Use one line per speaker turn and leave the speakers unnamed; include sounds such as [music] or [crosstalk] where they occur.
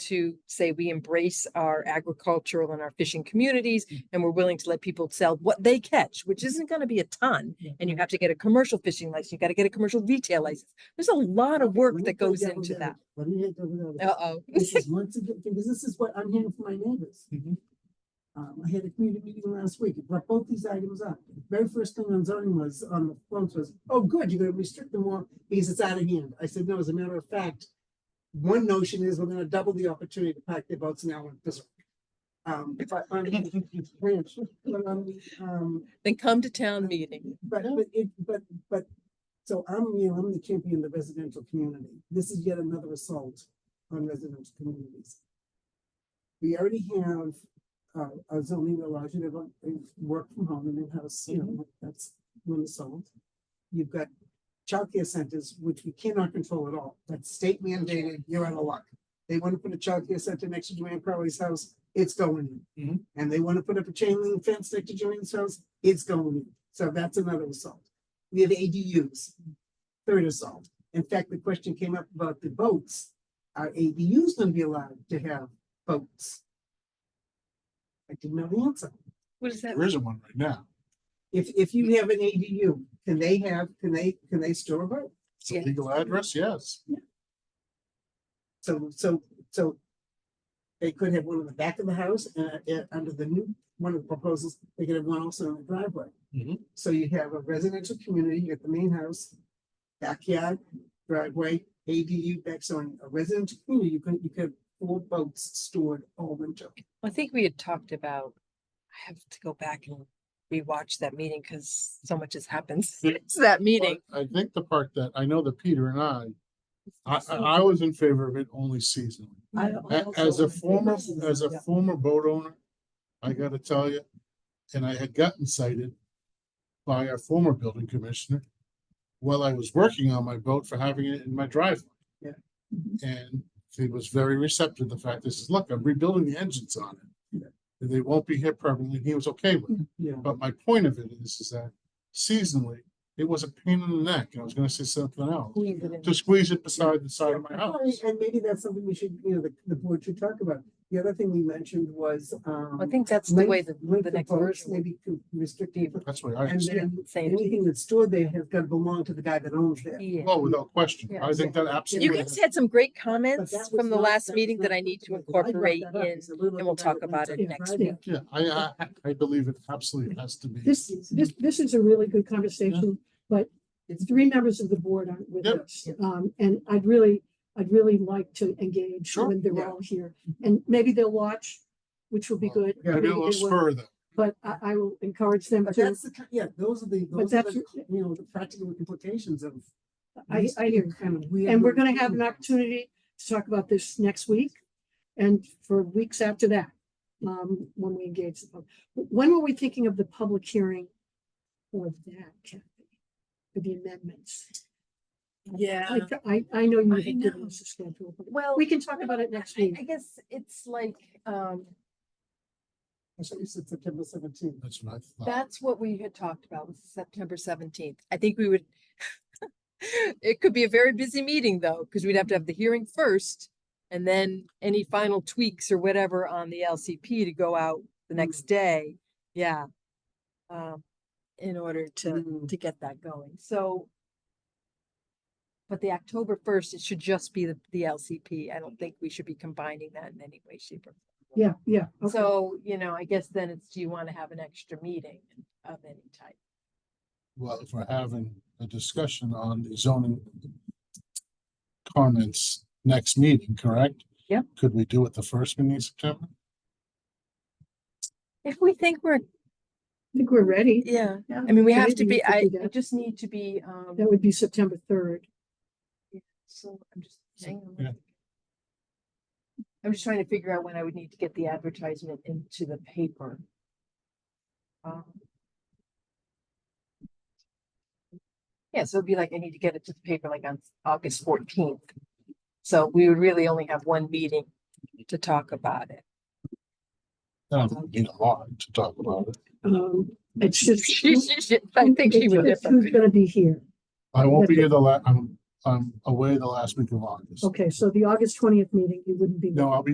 to say we embrace our agricultural and our fishing communities and we're willing to let people sell what they catch, which isn't going to be a ton. And you have to get a commercial fishing license. You got to get a commercial retail license. There's a lot of work that goes into that. Uh oh.
This is once again, because this is what I'm hearing from my neighbors.
Mhm.
Um, I had a community meeting last week, it brought both these items up. Very first thing on zoning was, on the phones was, oh, good, you're gonna restrict them more because it's out of hand. I said, no, as a matter of fact, one notion is we're gonna double the opportunity to pack their boats now in Bismarck. Um, but on the branch, but on the, um,
Then come to town meeting.
but, but it, but, but, so I'm, you know, I'm the champion of the residential community. This is yet another assault on residential communities. We already have, uh, a zoning that allows you to go and work from home and in-house, you know, that's one assault. You've got childcare centers, which we cannot control at all. That's state mandated, you're out of luck. They want to put a childcare center next to Joanne Crowley's house, it's going in.
Mhm.
And they want to put up a chain link fence next to Joanne's house, it's going in. So that's another assault. We have ADUs, third assault. In fact, the question came up about the boats. Are ADUs going to be allowed to have boats? I didn't know the answer.
What is that?
There isn't one right now.
If, if you have an ADU, can they have, can they, can they store a boat?
It's a
Yeah.
legal address, yes.
So, so, so they could have one in the back of the house and, uh, uh, under the new, one of the proposals, they could have one also in the driveway.
Mhm.
So you have a residential community, you got the main house, backyard, driveway, ADU, back, so in a residential community, you could, you could have four boats stored all winter.
I think we had talked about, I have to go back and rewatch that meeting because so much has happened [laughs] since that meeting.
But I think the part that, I know that Peter and I, I, I I was in favor of it only seasonally.
I- I
A-
also
As a
wanna do
former,
this.
as a
Yeah. Mm-hmm.
former boat owner, I gotta tell you, and I had gotten cited by our former building commissioner while I was working on my boat for having it in my driveway. Mm-hmm.
Yeah.
And he was very receptive to the fact, this is, look, I'm rebuilding the engines on it. And They won't be here permanently. He was okay with it.
Yeah.
But my point of it is, is that seasonally, it was a pain in the neck, and I was gonna say something else, to squeeze it beside the side of my house.
And maybe that's something we should, you know, the, the board should talk about. The other thing we mentioned was, um.
I think that's the way the,
length
the
of
next
boats,
version.
Maybe could restrict even.
That's what I
And
understand.
then
Same.
anything that's stored there has got to belong to the guy that owns it.
Yeah.
Oh, without question.
Yeah.
I think that absolutely.
You guys had some great comments from the last meeting that I need to incorporate in. and we'll talk about it next week.
Yeah, I, I, I believe it absolutely has to be.
This, this, this is a really good conversation, but the three members of the board aren't with
Yep.
us. Um, and I'd really, I'd really like to engage
Sure,
when
yeah.
they're all here. And maybe they'll watch, which will be
Well,
good.
yeah,
Maybe a
maybe
little
they won't,
further.
But I, I will encourage them
But
to,
that's the, ki- yeah, those are the, those are
that's-
the, you know, the practical implications of.
I,
these
I hear.
being kind of weird
And we're
little
gonna have an
things.
opportunity to talk about this next week and for weeks after that, um, when we engage the public. When were we thinking of the public hearing for that, Kathy? For the amendments?
Yeah.
I, th- I, I know you
I
had given
know.
us a schedule, but
Well,
we can talk about it next
I I
week.
guess it's like, um,
I thought you said September seventeenth.
That's what I thought.
that's what we had talked about, was September seventeenth. I think we would. [laughs] It could be a very busy meeting though, because we'd have to have the hearing first and then any final tweaks or whatever on the LCP to go out the next day. Yeah. Um, in order to,
Mm.
to get that going. So. But the October first, it should just be the, the LCP. I don't think we should be combining that in any way, shape or
Yeah, yeah. okay.
so, you know, I guess then it's, do you want to have an extra meeting of any type?
Well, if we're having a discussion on the zoning comments next meeting, correct?
Yep.
Could we do it the first meeting in September?
If we think we're,
I think we're ready.
yeah,
Yeah,
I mean, we have
maybe
to be,
could
I,
do
I
that.
just need to be, um,
That would be September third.
so I'm just. hang on one
Yeah.
second. I'm just trying to figure out when I would need to get the advertisement into the paper. Um, Yeah, so it'd be like, I need to get it to the paper like on August fourteenth. So we would really only have one meeting to talk about it.
I don't think we need a lot to talk about it.
Um, it's
[laughs]
just.
She- she- she- I think she would.
It's just Who's gonna be here?
I won't be here the la, I'm, I'm away the last week of August.
Okay, so the August twentieth meeting, you wouldn't be.
No, I'll be